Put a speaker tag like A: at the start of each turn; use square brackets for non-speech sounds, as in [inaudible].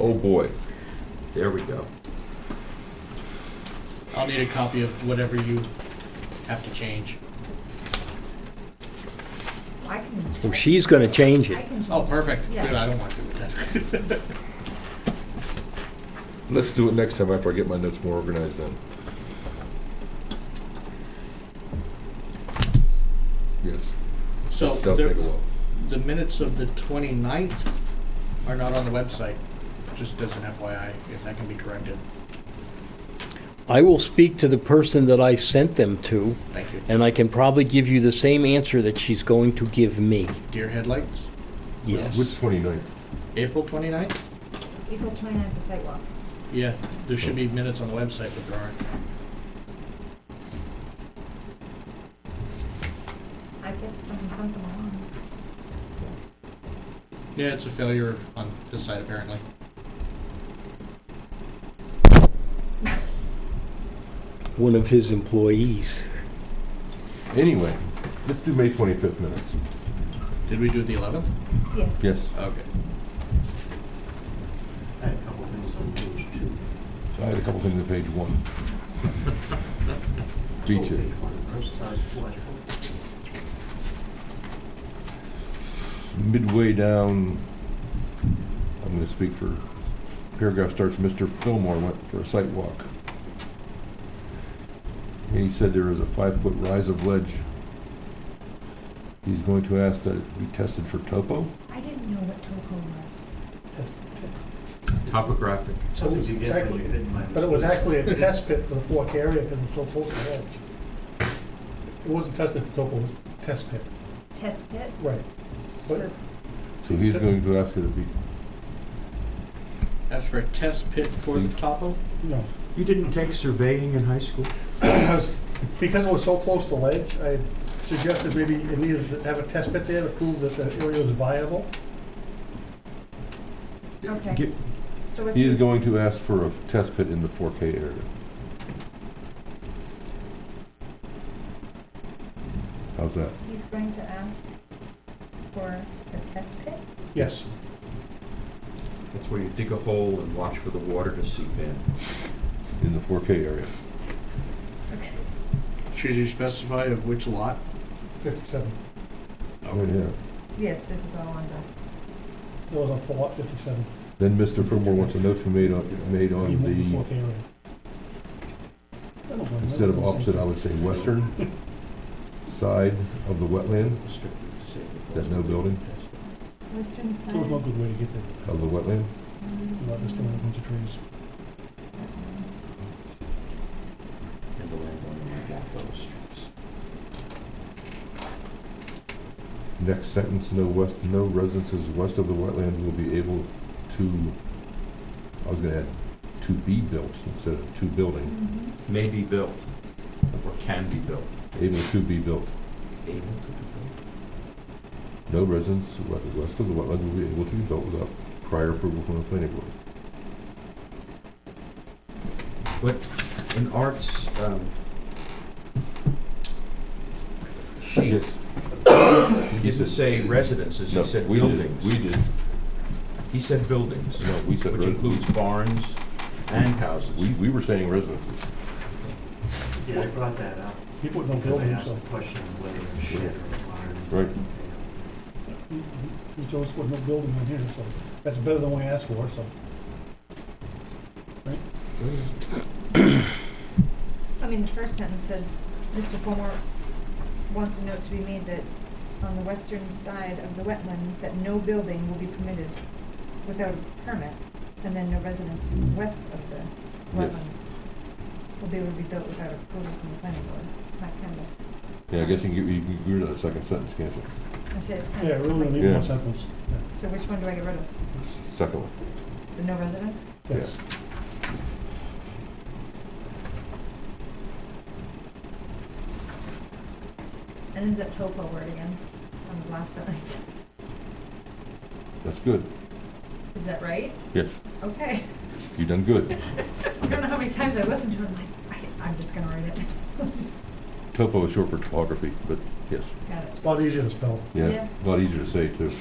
A: Oh, boy. There we go.
B: I'll need a copy of whatever you have to change.
C: I can.
D: Well, she's going to change
C: I
D: it.
C: can.
B: Oh, perfect. Good,
C: Yeah.
B: I don't want to do that.
A: Let's do it next time after I get my notes more organized then. Yes,
B: So
A: that'll take a
B: the,
A: while.
B: the minutes of the 29th are not on the website, just as an FYI, if that can be corrected.
D: I will speak to the person that I sent them to,
B: Thank you.
D: and I can probably give you the same answer that she's going to give me.
B: Deer headlights,
A: Which
D: Yes.
A: 29th?
B: April 29th?
C: April 29th, the sidewalk.
B: Yeah, there should be minutes on the website, but there aren't.
C: I guess them and sent them along.
B: Yeah, it's a failure on this side apparently.
D: One of his employees.
A: Anyway, let's do May 25th minutes.
B: Did we do the 11th?
C: Yes.
A: Yes.
B: Okay. I had a couple things on page two.
A: I had a couple things on page one. Beat you. Midway down, I'm gonna speak for, paragraph starts, Mr. Fillmore went for a site walk. And he said there is a five-foot rise of ledge. He's going to ask that it be tested for topo.
C: I didn't know what topo was.
E: Topographic.
F: So it was actually- But it was actually a test pit for the fork area because it's so close to the edge. It wasn't tested for topo, it was test pit,
C: Test pit?
F: right.
C: So-
A: So he's going to ask it to be,
B: That's for a test pit for
A: Mm-hmm.
B: the topo?
F: No.
E: You didn't take surveying in high school?
F: [clears throat] I was- Because it was so close to the ledge, I suggested maybe it needed to have a test pit there to prove that the area was viable.
C: Okay.
A: Get-
C: So what
A: he
C: you
A: is going to ask for a test pit in the 4K area. How's that?
C: He's going to ask for a test pit?
F: Yes.
E: That's where you dig a hole and watch for the water to seep in.
A: In the 4K area.
C: Okay.
B: Should you specify of which lot?
F: Fifty-seven.
A: Oh, yeah.
C: Yes, this is all on
F: It was on four lot fifty-seven.
A: Then Mr. Fillmore wants a note to be made on, made on
F: Even the
A: the,
F: fork area. I don't know.
A: instead of opposite, I would say western side of the wetland, there's no building
C: the western side.
F: There was no good way to get there.
A: of the wetland.
F: You let us down a bunch of trees.
E: And the landowner might want those streets.
A: Next sentence, no west, no residences west of the wetland will be able to, I was gonna add, to be built instead of to building,
C: Mhm.
E: May be built, or can be built.
A: able to be built.
E: Able to be built.
A: No residence we- west of the wetland will be able to be built without prior approval from the planning board.
E: In arts, um, she
A: Yes.
E: didn't say residences, he
A: No,
E: said
A: we did-
E: buildings.
A: We did,
E: He said buildings.
A: no, we said
E: Which
A: residences.
E: includes barns and houses.
A: We, we were saying residences.
G: Yeah, I brought that up.
F: He put no
G: I
F: building,
G: asked
F: so
G: the question of whether it was shed or a barn.
A: Right.
F: he he chose to put no building on here, so that's better than what I asked for, so.
C: I mean, the first sentence said, Mr. Fulmore wants a note to be made that on the western side of the wetland, that no building will be permitted without a permit, and then no residence west of the wetlands will be able to be built without approval from the planning board. Not kind of,
A: Yeah, I guess you can, get- you can get rid of that second sentence, can't you?
C: I say it's kind
F: Yeah,
C: of.
F: really
C: like-
F: only
A: Yeah.
F: one sentence.
C: So which one do I get rid of?
A: Second one.
C: The no residence?
F: Yes.
C: And is that topo word again on the last sentence? [laughs]
A: That's good.
C: Is that right?
A: Yes,
C: Okay. [laughs]
A: you done good.
C: I don't know how many times I listened to it, I'm like, I, I'm just gonna write it. [laughs]
A: Topo is short for topography, but yes.
C: Got it.
F: It's a lot easier to spell.
A: Yeah,
C: Yeah.
A: a lot easier to say too.